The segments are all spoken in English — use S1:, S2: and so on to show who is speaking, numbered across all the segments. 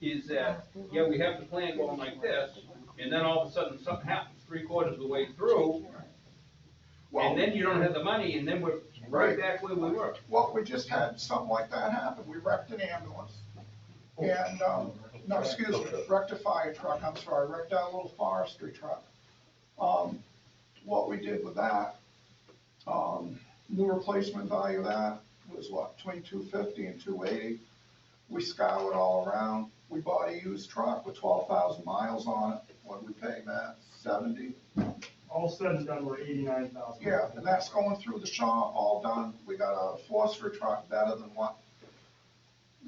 S1: is that, yeah, we have the plan going like this, and then all of a sudden something happens three quarters of the way through,
S2: Well,
S1: and then you don't have the money, and then we're right
S2: Right.
S1: back where we were.
S2: well, we just had something like that happen. We wrecked an ambulance. And, um, no, excuse me, wrecked a fire truck, I'm sorry, wrecked out a little forestry truck. Um, what we did with that, um, new replacement value of that was what, between two fifty and two eighty? We scoured all around. We bought a used truck with twelve thousand miles on it. What we paying that? Seventy?
S3: All said and done, we're eighty-nine thousand.
S2: Yeah, and that's going through the shop, all done. We got a phosphor truck better than what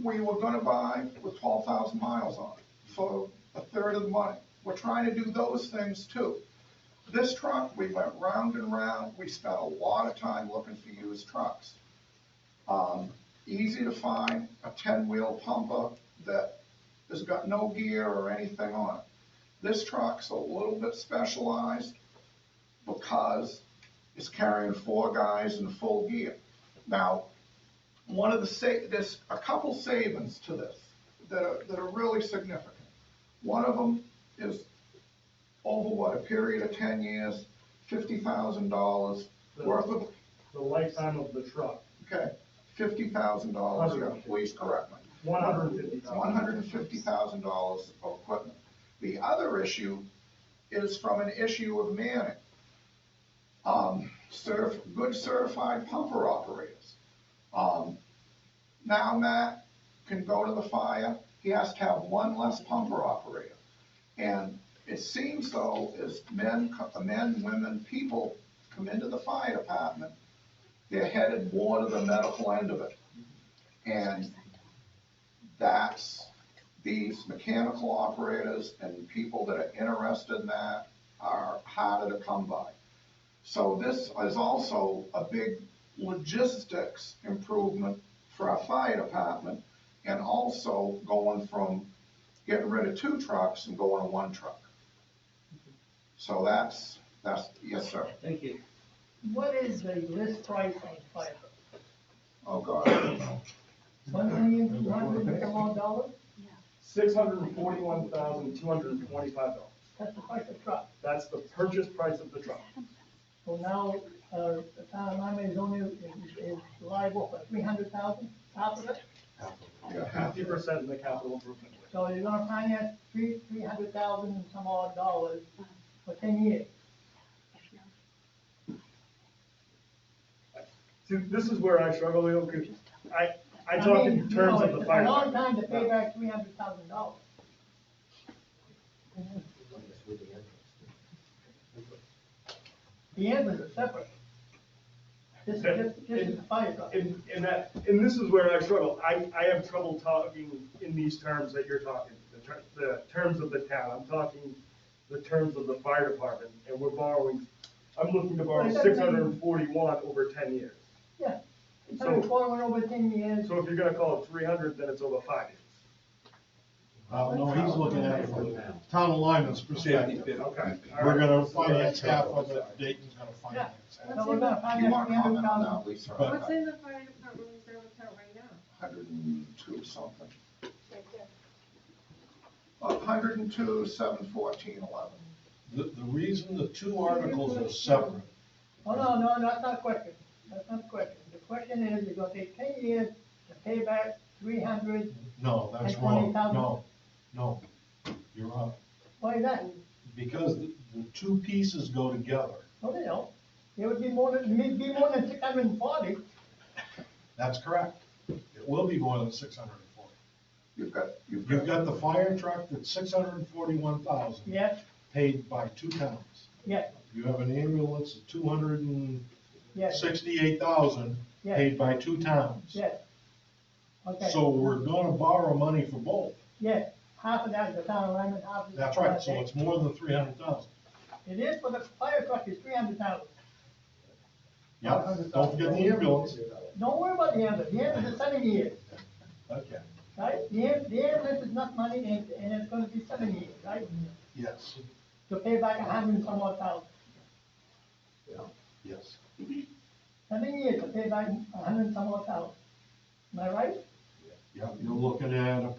S2: we were gonna buy with twelve thousand miles on it for a third of the money. We're trying to do those things too. This truck, we went round and round. We spent a lot of time looking for used trucks. Um, easy to find, a ten-wheel pumper that has got no gear or anything on it. This truck's a little bit specialized because it's carrying four guys in full gear. Now, one of the sa, there's a couple savings to this that are, that are really significant. One of them is over what, a period of ten years, fifty thousand dollars worth of,
S3: The lifetime of the truck,
S2: okay, fifty thousand dollars, yeah, please correct me.
S3: one hundred and fifty thousand.
S2: One hundred and fifty thousand dollars of equipment. The other issue is from an issue of manning. Um, certif, good certified pumper operators. Um, now Matt can go to the fire, he has to have one less pumper operator. And it seems though, as men, co- men, women, people come into the fire department, they're headed more to the medical end of it. And that's these mechanical operators and people that are interested in that are harder to come by. So this is also a big logistics improvement for our fire department and also going from getting rid of two trucks and going to one truck. So that's, that's, yes, sir.
S1: Thank you.
S4: What is the list price on fire?
S2: Oh, God. I don't know.
S4: One million, two hundred and some odd dollars?
S3: Six hundred and forty-one thousand, two hundred and twenty-five dollars.
S4: That's the price of truck.
S3: That's the purchase price of the truck.
S4: So now, uh, the town of Lyman is only, is, is liable for three hundred thousand, half of it?
S2: Yeah.
S3: Fifty percent in the capital improvement. plan.
S4: So you're gonna finance three, three hundred thousand and some odd dollars for ten years.
S3: See, this is where I struggle, Leo, because I, I
S4: mean,
S3: talk in
S4: you
S3: terms
S4: know,
S3: of the
S4: it's
S3: fire.
S4: A long time to
S3: department.
S4: pay back three hundred thousand dollars. The ambulance is separate. This is, this this is the fire truck.
S3: And, and that, and this is where I struggle. I, I have trouble talking in these terms that you're talking, the ter, the terms of the town. I'm talking the terms of the fire department, and we're borrowing, I'm looking to borrow
S4: Well, it doesn't
S3: six
S4: mean-
S3: hundred and forty-one over ten years.
S4: Yeah, it's
S3: So-
S4: been forward over ten years.
S3: So if you're gonna call it three hundred, then it's over five years.
S5: Uh, no, he's looking at it from town alignment's perspective.
S3: Okay.
S5: We're gonna finance half of it, Dayton's gonna
S4: Yeah,
S5: finance half.
S4: so we're gonna
S2: You
S4: finance
S2: want
S4: three
S2: to comment
S4: hundred
S2: on
S4: thousand.
S2: that, Lisa?
S5: But-
S6: What's in the fire department reserve account right now?
S2: Hundred and two something.
S6: Right there.
S2: A Uh, hundred and two, seven fourteen, eleven.
S5: The, the reason the two articles are separate,
S4: Oh, no, no, no, that's not a question. That's not a question. The question is, it's gonna take ten years to pay back three hundred,
S5: no, that's
S4: Like
S5: wrong,
S4: 20,000?
S5: no, no, you're up.
S4: why is that?
S5: Because the, the two pieces go together,
S4: No, they don't. It would be more than, it'd be more than six hundred and forty.
S5: that's correct. It will be more than six hundred and forty.
S2: You've got, you've
S5: You've
S2: got,
S5: got the fire truck that's six hundred and forty-one thousand.
S4: Yes,
S5: Paid by two towns.
S4: yes,
S5: You have an ambulance of two hundred and
S4: yes,
S5: sixty-eight thousand,
S4: Yes.
S5: paid by two towns.
S4: yes. Okay,
S5: So we're gonna borrow money for both.
S4: yes, half of that is the town of Lyman, half is. the
S5: That's
S4: town
S5: right,
S4: of
S5: so
S4: Dayton.
S5: it's more than three hundred thousand.
S4: It is for the fire truck, it's three hundred thousand.
S5: Yeah, don't forget the ambulance.
S4: Don't worry about the ambulance. The ambulance is seven years,
S5: Okay.
S4: right? The am- the ambulance is not money and, and it's gonna be seven years, right?
S5: Yes,
S4: To pay back a hundred and some odd thousand.
S5: yes.
S4: Seven years to pay back a hundred and some odd thousand. Am I right?
S5: Yeah, you're looking at a